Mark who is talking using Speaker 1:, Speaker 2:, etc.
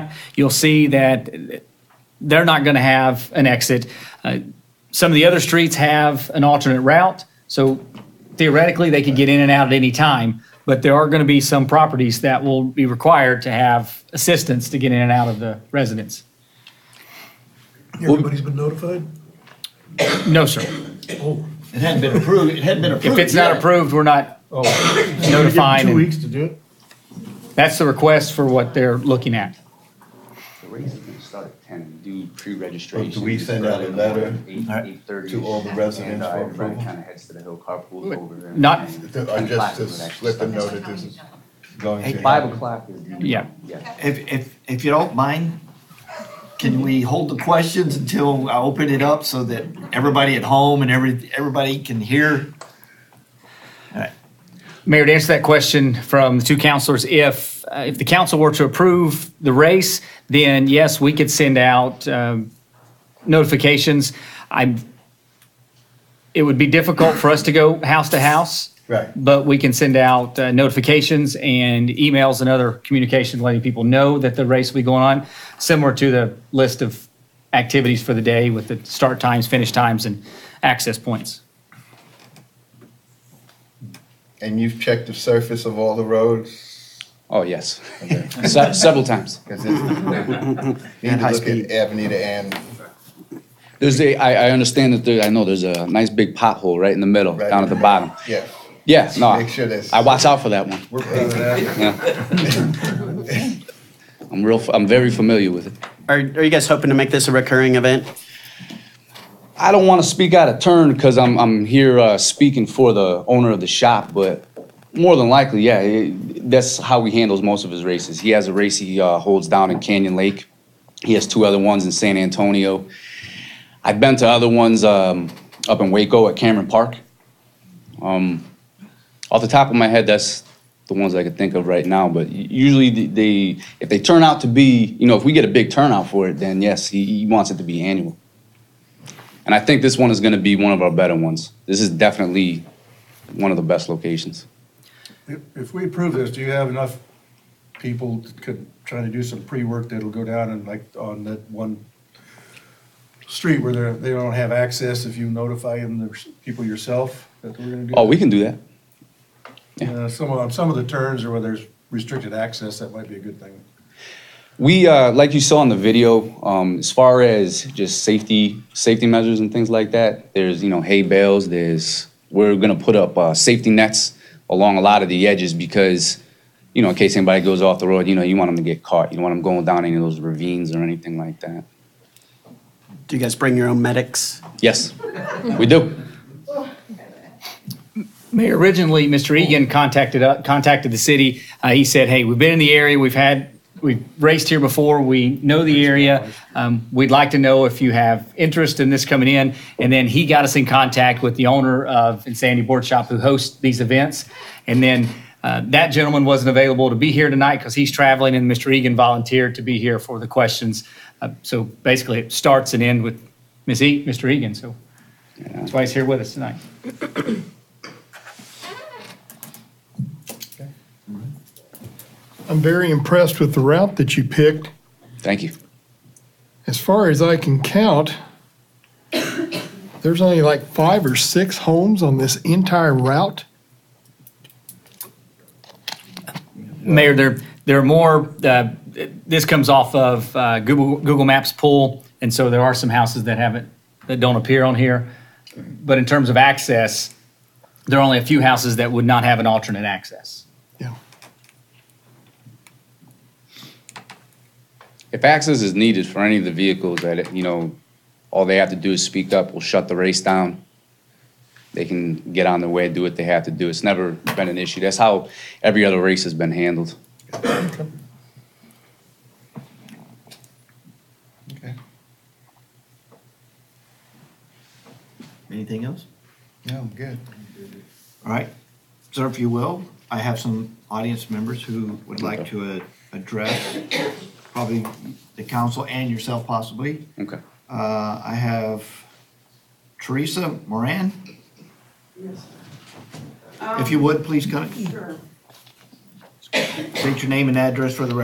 Speaker 1: you'll see that they're not going to have an exit. Uh, some of the other streets have an alternate route, so theoretically they could get in and out at any time. But there are going to be some properties that will be required to have assistance to get in and out of the residence.
Speaker 2: Everybody's been notified?
Speaker 1: No, sir.
Speaker 2: Oh,
Speaker 3: It hadn't been approved, it hadn't been
Speaker 1: If
Speaker 3: approved.
Speaker 1: it's not
Speaker 3: yet.
Speaker 1: approved, we're not
Speaker 4: oh.
Speaker 1: notifying.
Speaker 4: Two
Speaker 1: and
Speaker 4: weeks to do it?
Speaker 1: That's the request for what they're looking at.
Speaker 5: The race is gonna start at ten, and do pre-registration.
Speaker 3: But do we send out a letter to all the residents for approval?
Speaker 5: Kinda heads to the hill carpool over and-
Speaker 1: Not-
Speaker 5: and-
Speaker 3: I just,
Speaker 5: and
Speaker 3: just slip a note that this is going to.
Speaker 5: Five
Speaker 3: happen.
Speaker 5: o'clock is the.
Speaker 1: Yeah.
Speaker 3: If, if, if you don't mind, can we hold the questions until I open it up so that everybody at home and every, everybody can hear?
Speaker 1: Mayor, to answer that question from the two counselors, if, uh, if the council were to approve the race, then yes, we could send out um, notifications. I, it would be difficult for us to go house to house.
Speaker 3: Right.
Speaker 1: But we can send out uh, notifications and emails and other communication letting people know that the race will be going on, similar to the list of activities for the day with the start times, finish times, and access points.
Speaker 6: And you've checked the surface of all the roads?
Speaker 5: Oh, yes. Se- Several times.
Speaker 6: Because it's, need
Speaker 3: And
Speaker 6: to
Speaker 3: high
Speaker 6: look
Speaker 3: speed.
Speaker 6: at Avenida and,
Speaker 5: There's a, I, I understand that there, I know there's a nice big pothole right in the middle,
Speaker 6: Right.
Speaker 5: down at the bottom.
Speaker 6: yeah.
Speaker 5: Yeah, no.
Speaker 6: Make sure that's-
Speaker 5: I watch out for that one.
Speaker 6: We're proud of that.
Speaker 5: Yeah. I'm real, I'm very familiar with it.
Speaker 7: Are, are you guys hoping to make this a recurring event?
Speaker 5: I don't want to speak out of turn because I'm, I'm here uh, speaking for the owner of the shop, but more than likely, yeah, it, that's how he handles most of his races. He has a race he uh, holds down in Canyon Lake. He has two other ones in San Antonio. I've been to other ones um, up in Waco at Cameron Park. Um, off the top of my head, that's the ones I could think of right now. But u- usually, the, they if they turn out to be, you know, if we get a big turnout for it, then yes, he, he wants it to be annual. And I think this one is going to be one of our better ones. This is definitely one of the best locations.
Speaker 4: If, if we approve this, do you have enough people that could, try to do some pre-work that'll go down and like on that one street where they're, they don't have access if you notify them, there's people yourself that we're gonna do?
Speaker 5: Oh, we can do that.
Speaker 4: Uh, some, on some of the turns or where there's restricted access, that might be a good thing.
Speaker 5: We, uh, like you saw in the video, um, as far as just safety, safety measures and things like that, there's, you know, hay bales, there's, we're going to put up uh, safety nets along a lot of the edges because, you know, in case anybody goes off the road, you know, you want them to get caught. You don't want them going down any of those ravines or anything like that.
Speaker 7: Do you guys bring your own medics?
Speaker 5: Yes, we do.
Speaker 1: Mayor, originally, Mr. Egan contacted, uh, contacted the city. Uh, he said, hey, we've been in the area, we've had, we've raced here before, we know the area. Um, we'd like to know if you have interest in this coming in. And then he got us in contact with the owner of Insanity Board Shop who hosts these events. And then, uh, that gentleman wasn't available to be here tonight because he's traveling and Mr. Egan volunteered to be here for the questions. Uh, so basically, it starts and ends with Ms. E, Mr. Egan, so that's why he's here with us tonight.
Speaker 2: I'm very impressed with the route that you picked.
Speaker 5: Thank you.
Speaker 2: As far as I can count, there's only like five or six homes on this entire route.
Speaker 1: Mayor, there, there are more, uh, this comes off of uh, Google, Google Maps pool, and so there are some houses that haven't, that don't appear on here. But in terms of access, there are only a few houses that would not have an alternate access.
Speaker 2: Yeah.
Speaker 5: If access is needed for any of the vehicles that, you know, all they have to do is speak up, we'll shut the race down. They can get on their way, do what they have to do. It's never been an issue. That's how every other race has been handled.
Speaker 3: Okay. Anything else?
Speaker 6: No, I'm good.
Speaker 3: All right, sir, if you will, I have some audience members who would like to uh, address probably the council and yourself possibly.
Speaker 5: Okay.
Speaker 3: Uh, I have Teresa Moran. If you would, please come. State your name and address for the record.